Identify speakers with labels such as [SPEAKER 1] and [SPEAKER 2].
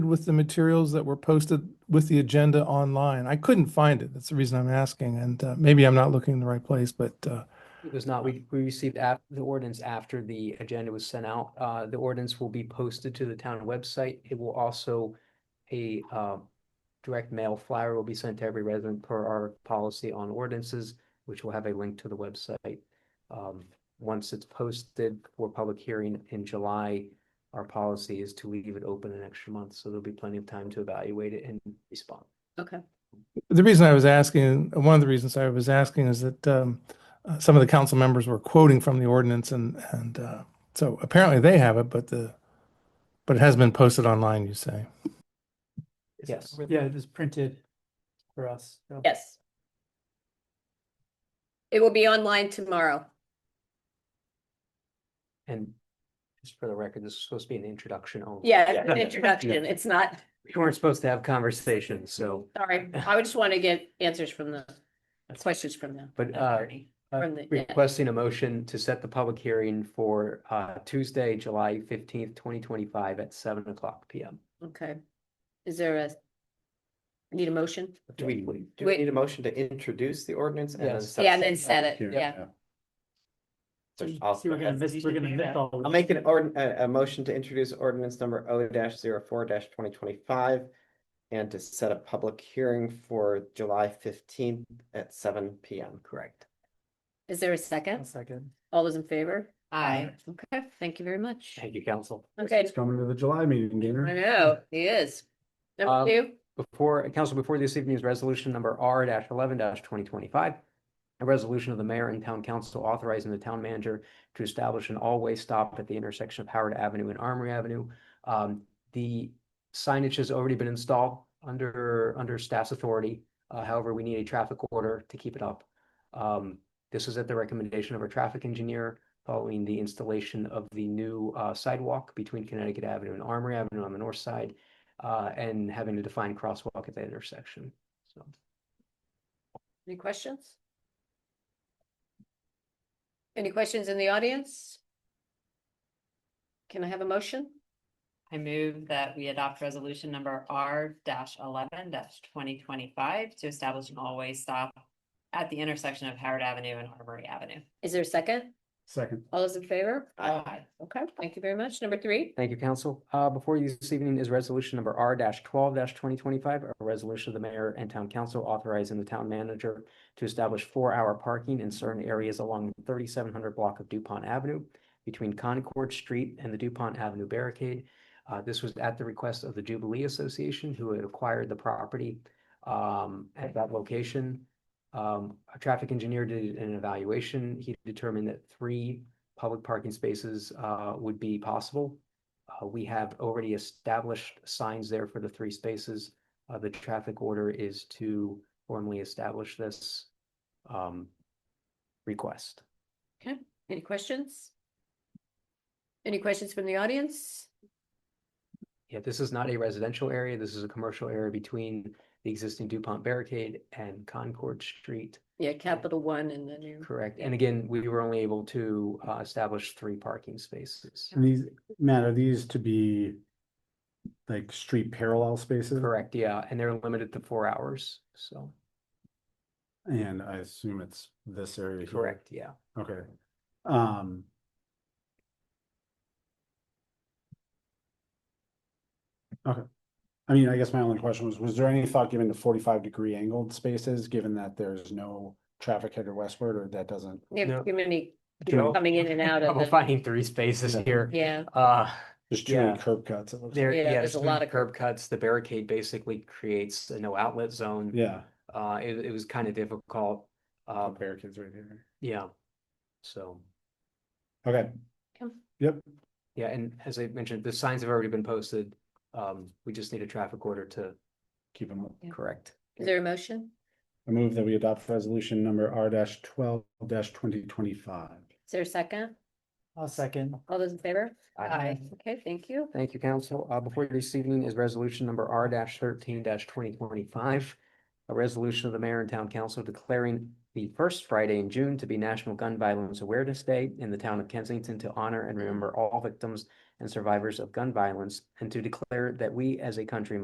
[SPEAKER 1] with the materials that were posted with the agenda online. I couldn't find it. That's the reason I'm asking, and uh, maybe I'm not looking in the right place, but uh,
[SPEAKER 2] It was not, we, we received app, the ordinance after the agenda was sent out. Uh, the ordinance will be posted to the town website. It will also, a, uh, direct mail flyer will be sent to every resident per our policy on ordinances, which will have a link to the website. Um, once it's posted for public hearing in July, our policy is to leave it open an extra month, so there'll be plenty of time to evaluate it and respond.
[SPEAKER 3] Okay,
[SPEAKER 1] the reason I was asking, one of the reasons I was asking is that um, uh, some of the council members were quoting from the ordinance and, and uh, so apparently they have it, but the, but it has been posted online, you say.
[SPEAKER 4] Is it-
[SPEAKER 2] Yes.
[SPEAKER 4] Yeah, it is printed for us. so.
[SPEAKER 3] yes. It will be online tomorrow.
[SPEAKER 2] And just for the record, this is supposed to be an introduction only.
[SPEAKER 3] Yeah, it's an introduction. It's not,
[SPEAKER 2] We weren't supposed to have conversations, so,
[SPEAKER 3] sorry, I would just want to get answers from the,
[SPEAKER 2] That's-
[SPEAKER 3] questions from the
[SPEAKER 2] but, uh,
[SPEAKER 3] attorney.
[SPEAKER 2] uh,
[SPEAKER 3] From the- yeah.
[SPEAKER 2] requesting a motion to set the public hearing for, uh, Tuesday, July fifteenth, twenty twenty-five at seven o'clock P M.
[SPEAKER 3] Okay. Is there a, need a motion?
[SPEAKER 2] Do we, we-
[SPEAKER 5] Do we
[SPEAKER 3] Wait.
[SPEAKER 5] need a motion to introduce the ordinance and then?
[SPEAKER 2] Yes.
[SPEAKER 5] set
[SPEAKER 3] Yeah, and then
[SPEAKER 5] the
[SPEAKER 3] set it,
[SPEAKER 5] public
[SPEAKER 3] yeah.
[SPEAKER 5] hearing? So I'll-
[SPEAKER 4] See, we're gonna miss, we're gonna miss all. of
[SPEAKER 5] I'll
[SPEAKER 4] this.
[SPEAKER 5] make an ord, a, a motion to introduce ordinance number O 4 twenty twenty-five. And to set a public hearing for July fifteenth at seven P M. Correct.
[SPEAKER 3] Is there a
[SPEAKER 4] One
[SPEAKER 3] second?
[SPEAKER 4] second.
[SPEAKER 3] All those in favor?
[SPEAKER 4] Aye.
[SPEAKER 3] Okay, thank you very much.
[SPEAKER 2] thank you, council.
[SPEAKER 3] Okay,
[SPEAKER 6] He's coming to the July meeting,
[SPEAKER 3] I
[SPEAKER 6] Gainer.
[SPEAKER 3] know, he is.
[SPEAKER 2] Um,
[SPEAKER 3] Number two,
[SPEAKER 2] Before, council, before this evening's resolution number R eleven twenty twenty-five. A resolution of the mayor and town council authorizing the town manager to establish an all-way stop at the intersection of Howard Avenue and Armory Avenue. Um, the signage has already been installed under, under staff's authority. Uh, however, we need a traffic order to keep it up. Um, this is at the recommendation of our traffic engineer following the installation of the new, uh, sidewalk between Connecticut Avenue and Armory Avenue on the north side uh, and having a defined crosswalk at the intersection. So
[SPEAKER 3] any questions? Any questions in the audience? Can I have a motion?
[SPEAKER 7] I move that we adopt resolution number R eleven twenty twenty-five to establish an always stop at the intersection of Howard Avenue and Armory Avenue.
[SPEAKER 3] Is there a second?
[SPEAKER 6] Second,
[SPEAKER 3] All those in favor?
[SPEAKER 7] Aye.
[SPEAKER 3] Okay, thank you very much. Number three,
[SPEAKER 2] thank you, council. Uh, before you this evening is resolution number R twelve twenty twenty-five, a resolution of the mayor and town council authorizing the town manager to establish four-hour parking in certain areas along the thirty-seven hundred block of Dupont Avenue between Concord Street and the Dupont Avenue barricade. Uh, this was at the request of the Jubilee Association who had acquired the property um, at that location. Um, a traffic engineer did an evaluation. He determined that three public parking spaces uh, would be possible. Uh, we have already established signs there for the three spaces. Uh, the traffic order is to formally establish this um, request.
[SPEAKER 3] any questions? Any questions from the audience?
[SPEAKER 2] Yeah, this is not a residential area. This is a commercial area between the existing Dupont barricade and Concord Street.
[SPEAKER 3] Yeah, capital one and the new.
[SPEAKER 2] Correct. And again, we were only able to uh, establish three parking spaces.
[SPEAKER 6] and these, Matt, are these to be like street parallel spaces?
[SPEAKER 2] Correct, yeah, and they're limited to four hours, so,
[SPEAKER 6] And I assume it's this area. here.
[SPEAKER 2] correct, yeah.
[SPEAKER 6] Okay. Um. Okay. I mean, I guess my only question was, was there any thought given to forty-five degree angled spaces, given that there's no traffic headed westward or that doesn't?
[SPEAKER 3] We have
[SPEAKER 2] No.
[SPEAKER 3] too many
[SPEAKER 2] Joe?
[SPEAKER 3] people coming in and out of
[SPEAKER 2] Trouble
[SPEAKER 3] the,
[SPEAKER 2] finding three spaces
[SPEAKER 6] Yeah.
[SPEAKER 2] here.
[SPEAKER 3] yeah,
[SPEAKER 2] Uh,
[SPEAKER 6] There's too many
[SPEAKER 2] Yeah.
[SPEAKER 6] curb cuts. it looks like.
[SPEAKER 2] there,
[SPEAKER 3] Yeah,
[SPEAKER 2] yeah,
[SPEAKER 3] there's a
[SPEAKER 2] too many
[SPEAKER 3] lot of
[SPEAKER 2] curb cuts. The barricade basically creates a no outlet zone.
[SPEAKER 6] Yeah,
[SPEAKER 2] Uh, it, it was kind of difficult.
[SPEAKER 6] the
[SPEAKER 2] Uh,
[SPEAKER 6] barricades right here.
[SPEAKER 2] yeah. So,
[SPEAKER 6] Okay.
[SPEAKER 3] Okay.
[SPEAKER 6] Yep,
[SPEAKER 2] yeah, and as I mentioned, the signs have already been posted. Um, we just need a traffic order to
[SPEAKER 6] keep them.
[SPEAKER 2] correct.
[SPEAKER 3] is there a motion?
[SPEAKER 6] I move that we adopt resolution number R twelve twenty twenty-five.
[SPEAKER 3] Is there a second?
[SPEAKER 4] I'll second.
[SPEAKER 3] All those in favor?
[SPEAKER 2] Aye.
[SPEAKER 3] Okay, thank you.
[SPEAKER 2] Thank you, council. Uh, before you this evening is resolution number R thirteen twenty twenty-five. A resolution of the mayor and town council declaring the first Friday in June to be National Gun Violence Awareness Day in the town of Kensington to honor and remember all victims and survivors of gun violence, and to declare that we as a country